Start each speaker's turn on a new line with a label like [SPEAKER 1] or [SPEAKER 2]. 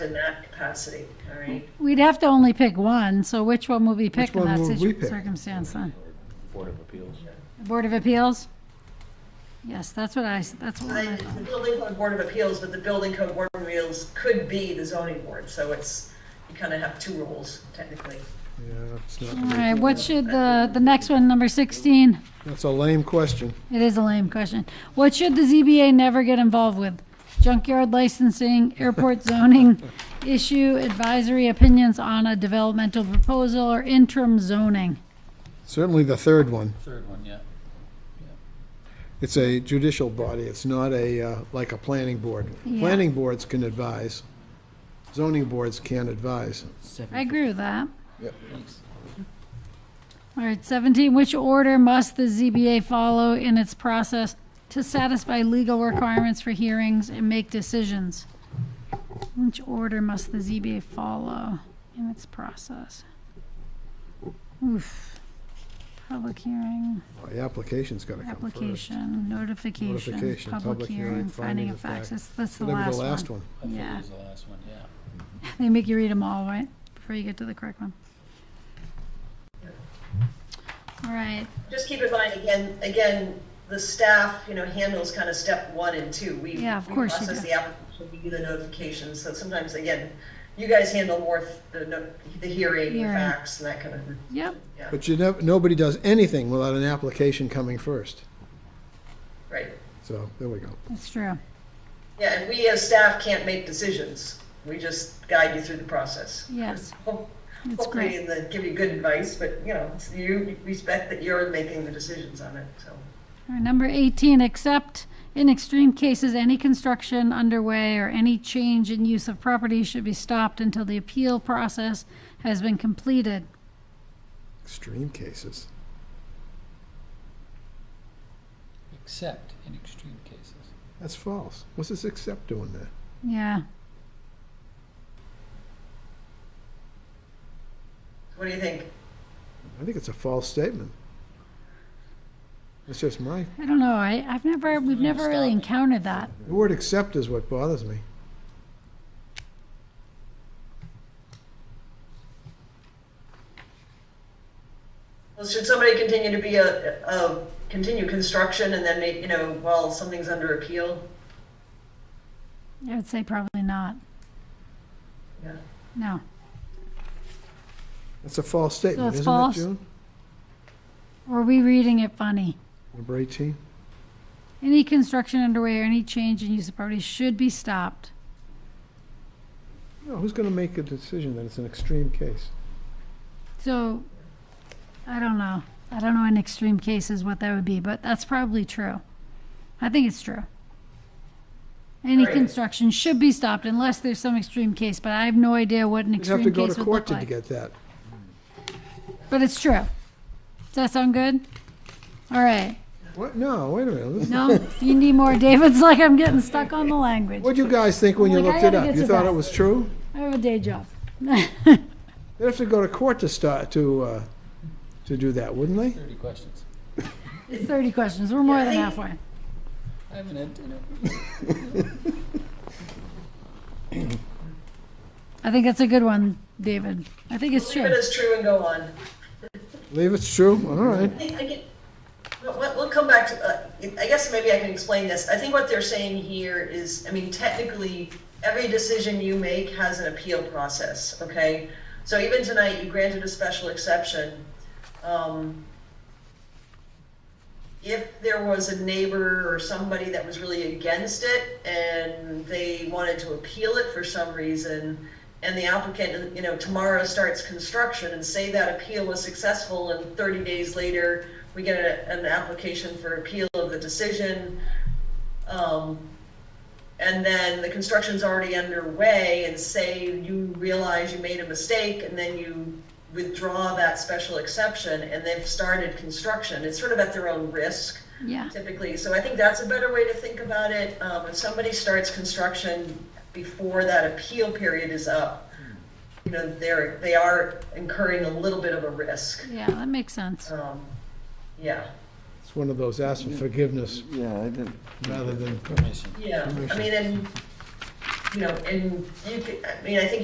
[SPEAKER 1] in that capacity, all right?
[SPEAKER 2] We'd have to only pick one, so which one would we pick in
[SPEAKER 3] one
[SPEAKER 2] that
[SPEAKER 3] would we
[SPEAKER 2] situ-
[SPEAKER 3] pick?
[SPEAKER 2] circumstance then?
[SPEAKER 4] Board of Appeals.
[SPEAKER 2] Board of Appeals? Yes, that's what I, s- that's what
[SPEAKER 1] I-
[SPEAKER 2] I
[SPEAKER 1] The
[SPEAKER 2] thought.
[SPEAKER 1] building code board of appeals, but the building code board of appeals could be the zoning board, so it's, you kind of have two rules technically.
[SPEAKER 3] Yeah, it's
[SPEAKER 2] All
[SPEAKER 3] not,
[SPEAKER 2] right, what should the, the next one, number 16?
[SPEAKER 3] that's a lame question.
[SPEAKER 2] It is a lame question. What should the ZBA never get involved with? Junkyard licensing, airport zoning, issue advisory opinions on a developmental proposal, or interim zoning?
[SPEAKER 3] Certainly the third one.
[SPEAKER 4] Third one, yeah.
[SPEAKER 3] It's a judicial body. It's not a, uh, like a planning board.
[SPEAKER 2] Yeah.
[SPEAKER 3] Planning boards can advise. Zoning boards can't advise.
[SPEAKER 2] I agree with that.
[SPEAKER 3] Yep.
[SPEAKER 2] All right, 17, which order must the ZBA follow in its process to satisfy legal requirements for hearings and make decisions? Which order must the ZBA follow in its process? Oof. Public hearing,
[SPEAKER 3] The application's gotta come first.
[SPEAKER 2] application, notification,
[SPEAKER 3] Notification,
[SPEAKER 2] public hearing, finding of facts. That's that's the
[SPEAKER 3] Whatever the
[SPEAKER 2] last
[SPEAKER 3] last
[SPEAKER 2] one.
[SPEAKER 3] one.
[SPEAKER 4] I think
[SPEAKER 2] Yeah.
[SPEAKER 4] it was the last one, yeah.
[SPEAKER 2] They make you read them all, right? Before you get to the correct one. All right,
[SPEAKER 1] Just keep in mind, again, again, the staff, you know, handles kind of step one and two. We
[SPEAKER 2] Yeah, of
[SPEAKER 1] we
[SPEAKER 2] course you
[SPEAKER 1] Process
[SPEAKER 2] do.
[SPEAKER 1] the application, we do the notifications, so sometimes, again, you guys handle more th- the, no- the hearing, the
[SPEAKER 2] Hearing.
[SPEAKER 1] facts, and that kind of,
[SPEAKER 2] yep.
[SPEAKER 1] yeah,
[SPEAKER 3] But you never, nobody does anything without an application coming first.
[SPEAKER 1] right.
[SPEAKER 3] So, there we go.
[SPEAKER 2] That's true.
[SPEAKER 1] Yeah, and we as staff can't make decisions. We just guide you through the process.
[SPEAKER 2] Yes.
[SPEAKER 1] Ho-
[SPEAKER 2] That's
[SPEAKER 1] Hopefully,
[SPEAKER 2] great.
[SPEAKER 1] in the, give you good advice, but, you know, it's- you respect that you're making the decisions on it, so.
[SPEAKER 2] All right, number 18, except in extreme cases, any construction underway or any change in use of property should be stopped until the appeal process has been completed.
[SPEAKER 3] Extreme cases.
[SPEAKER 4] Except in extreme cases.
[SPEAKER 3] That's false. What's this except doing there?
[SPEAKER 2] Yeah,
[SPEAKER 1] What do you think?
[SPEAKER 3] I think it's a false statement. That's just my,
[SPEAKER 2] I don't know. I, I've never, we've never really encountered that.
[SPEAKER 3] the word accept is what bothers me.
[SPEAKER 1] Well, should somebody continue to be a, a, continue construction and then make, you know, while something's under appeal?
[SPEAKER 2] I would say probably not.
[SPEAKER 1] Yeah.
[SPEAKER 2] No.
[SPEAKER 3] That's a false statement,
[SPEAKER 2] it's
[SPEAKER 3] isn't it,
[SPEAKER 2] false?
[SPEAKER 3] June?
[SPEAKER 2] Were we reading it funny?
[SPEAKER 3] Number 18?
[SPEAKER 2] Any construction underway or any change in use of property should be stopped.
[SPEAKER 3] No, who's going to make a decision that it's an extreme case?
[SPEAKER 2] So, I don't know. I don't know in extreme cases what that would be, but that's probably true. I think it's true. Any
[SPEAKER 1] Right.
[SPEAKER 2] construction should be stopped unless there's some extreme case, but I have no idea what an
[SPEAKER 3] You'd have to
[SPEAKER 2] extreme
[SPEAKER 3] go to
[SPEAKER 2] case would
[SPEAKER 3] court
[SPEAKER 2] look
[SPEAKER 3] to
[SPEAKER 2] like.
[SPEAKER 3] get that.
[SPEAKER 2] But it's true. Does that sound good? All right.
[SPEAKER 3] What? No, wait a minute. This-
[SPEAKER 2] No, you need more. David's like, I'm getting stuck on the language.
[SPEAKER 3] What'd you guys think when you
[SPEAKER 2] Like, Oh I
[SPEAKER 3] looked it
[SPEAKER 2] gotta
[SPEAKER 3] up?
[SPEAKER 2] get
[SPEAKER 3] You
[SPEAKER 2] to
[SPEAKER 3] thought
[SPEAKER 2] that.
[SPEAKER 3] it was true?
[SPEAKER 2] I have a day job.
[SPEAKER 3] They'd have to go to court to start, to, uh, to do that, wouldn't they?
[SPEAKER 4] Thirty questions.
[SPEAKER 2] It's 30 questions. We're more than halfway.
[SPEAKER 4] I haven't had dinner.
[SPEAKER 2] I think that's a good one, David. I think it's
[SPEAKER 1] Leave it
[SPEAKER 2] true.
[SPEAKER 1] as true and go on.
[SPEAKER 3] Believe it's true? All right.
[SPEAKER 1] I think, I get- we'll- we'll, we'll come back to, uh, I guess maybe I can explain this. I think what they're saying here is, I mean, technically, every decision you make has an appeal process, okay? So even tonight, you granted a special exception. Um, If there was a neighbor or somebody that was really against it and they wanted to appeal it for some reason, and the applicant, you know, tomorrow starts construction and say that appeal was successful and 30 days later, we get a- an application for appeal of the decision. um, And then the construction's already underway and say you realize you made a mistake and then you withdraw that special exception and they've started construction. It's sort of at their own risk
[SPEAKER 2] Yeah.
[SPEAKER 1] typically. So I think that's a better way to think about it. Um, if somebody starts construction before that appeal period is up, you know, they're, they are incurring a little bit of a risk.
[SPEAKER 2] Yeah, that makes sense.
[SPEAKER 1] Um, yeah.
[SPEAKER 3] It's one of those ask for forgiveness
[SPEAKER 5] Yeah, I did.
[SPEAKER 3] rather than,
[SPEAKER 4] Permission.
[SPEAKER 1] Yeah. I mean, and you know, and you could, I mean, I think